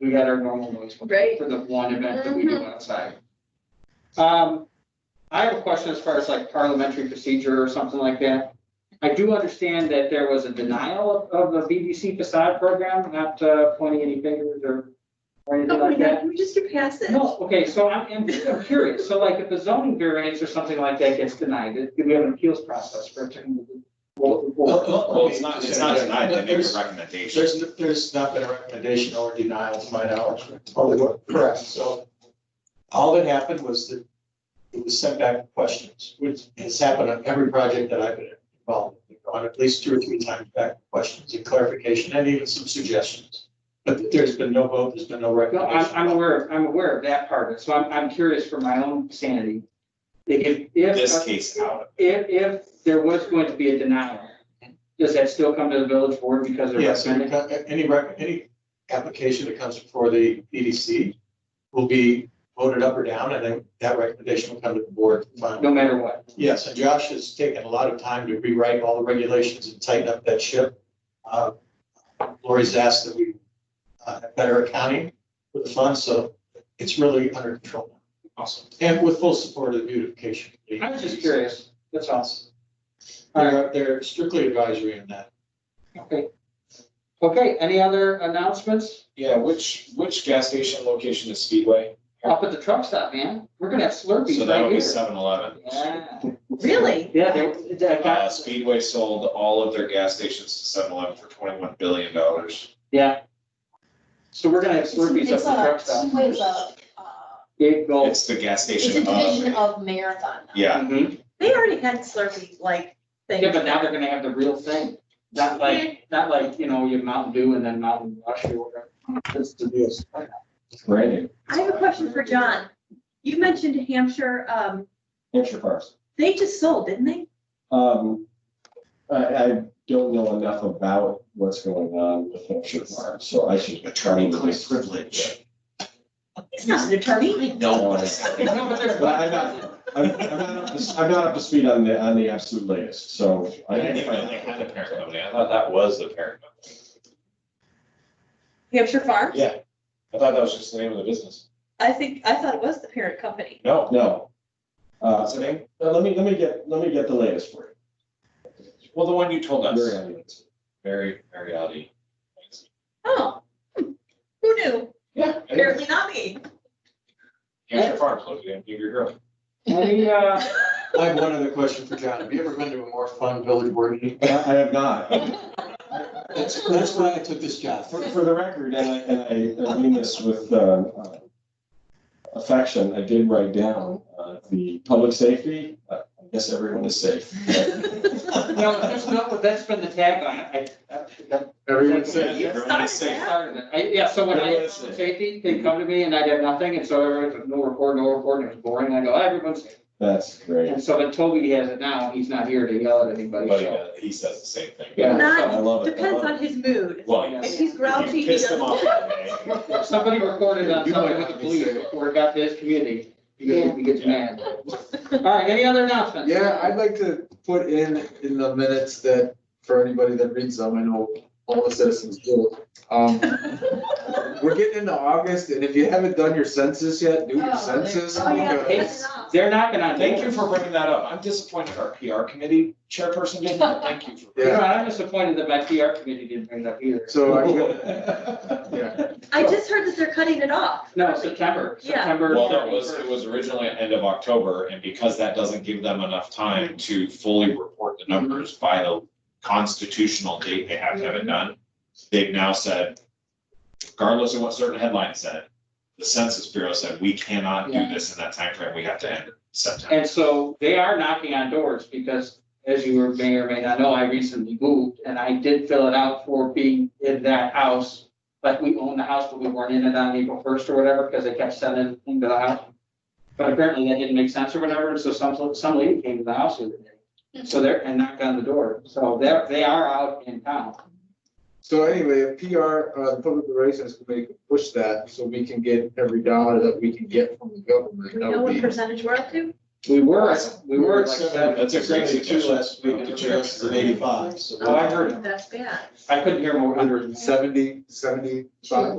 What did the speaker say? we got our normal noise for Right. for the one event that we do outside. Um, I have a question as far as like parliamentary procedure or something like that. I do understand that there was a denial of of the BBC facade program, not uh, pointing any fingers or or anything Oh my like that. God, we just a passage. No, okay, so I'm, I'm just- I'm curious, so like if a zoning variance or something like that gets denied, do we have an appeals process for turning the? Well, Well, well, well, Well, it's not, it's not denied, they make There's- a recommendation. There's, there's not been a recommendation or denial to my knowledge. Oh, they were, Correct, so all that happened was that it was sent back with questions, which has happened on every project that I've been involved in. They've gone at least two or three times back with questions and clarification and even some suggestions. But there's been no vote, there's been no no, I'm, recommendation. I'm aware, I'm aware of that part, of it. so I'm, I'm curious for my own sanity. If, This if, case out. if, if there was going to be a denial, does that still come to the village board because they're Yes, recommending? any, rec- any application that comes before the EDC will be voted up or down, and then that recommendation will come to the board. to find- No matter what, Yes, and Josh has taken a lot of time to rewrite all the regulations and tighten up that ship. Uh, Lori's asked that we uh, have better accounting for the funds, so it's really under control. now. Awesome. And with full support of the beautification. committee. I was just curious, that's awesome, They're, they're strictly advisory in that. okay. Okay, any other announcements? Yeah, which, which gas station location is Speedway? Up at the truck stop, man, we're gonna have So Slurpees that'll right be here. seven eleven. Yeah. Really? Yeah, they, they Uh, got, Speedway sold all of their gas stations to seven eleven for twenty-one billion dollars. yeah. So we're gonna have Slurpees up It's the truck a, stop. Speedway's a, uh, Big goal. It's the gas it's a station division of, of Marathon. now. yeah, Mhm. They already had Slurpee like things. Yeah, but now they're gonna have the real thing, not like, not like, you know, you have Mountain Dew and then Mountain Rush or whatever. That's the deal. Brandon. I have a question for John. You mentioned Hampshire, um, Hampshire Farms. they just sold, didn't they? Um, I, I don't know enough about what's going on with Hampshire Farms, so I should. attorney-client privilege. He's not an attorney. No, but it's- No, but there's- But I'm not- I'm, I'm not up to, I'm not up to speed on the, on the absolute latest, so. I didn't even know they had a parent company. I thought that was the parent company. Hampshire Farms? Yeah, I thought that was just the name of the business. I think, I thought it was the parent company. No, no. Uh, What's the name? uh, let me, let me get, let me get the latest for Well, the one you told you. us. Very obvious. Very, very oddie. Oh, hmm. who knew? Yeah. Hampshire Apparently not me. Farms, look, you give your girl. Any, uh, I have one other question for John. Have you ever been to a more fun village board meeting? I I have not. That's, that's why I took this job. For, for the record, and I, and I- I mean this with, uh, uh, affection, I did write down, uh, the public safety, Uh, I guess everyone is safe. no, there's no, but that's been the tagline, I, I- that- Everyone's safe. Everyone is safe. started it. I, yeah, so when I had Everyone's safe. safety, they'd come to me and I'd have nothing, and so everyone's like, no report, no report, and it was boring, and I go, everyone's safe. That's great. And so then Toby has it now, he's not here to yell at anybody, But so. uh, he says the same thing. Yeah. I Not, love it. I depends love on it. his mood. Well, Yeah. If he's grouchy, you he pissed him off doesn't. today. If Somebody recorded on You might something with the not be police safe. before it got to his community, because he gets Yeah. mad. All right, any other announcements? Yeah, I'd like to put in, in the minutes that, for anybody that reads them, I know all the citizens do. Um, we're getting into August, and if you haven't done your census yet, do your Oh, census. Oh, yeah. because- It's- They're knocking on Thank you doors. for bringing that up. I'm disappointed our PR committee chairperson didn't. Thank you for. You know, Yeah, I'm disappointed that my PR committee didn't bring it up either. so I'm gonna, yeah, I just heard that they're cutting it off. No, September, Yeah. September. Well, no, it was, 31st. it was originally at end of October, and because that doesn't give them enough time to fully report the numbers by the constitutional date they have to have it done, they've now said, regardless of what certain headline said, the Census Bureau said, we cannot do Yeah. this in that timeframe, we have to end it in September. And so they are knocking on doors because, as you were- may or may not know, I recently moved and I did fill it out for being in that house. But we own the house, but we weren't in it on April first or whatever, because they kept sending things to the house. But apparently that didn't make sense or whatever, so some, some lady came to the house the other day. So they're, and knocked on the door, so they're, they are out in town. so anyway, if PR, uh, the Public Relations Committee could push that, so we can get every dollar that we can get from the government. Do we that know would what be- percentage we're up to? We were, at- we were at like seven, That's a great Seventy-two suggestion. last week, and everybody else is at eighty-five, so. Oh, I heard it. That's bad. I couldn't hear more under Under seventy, seventy-five.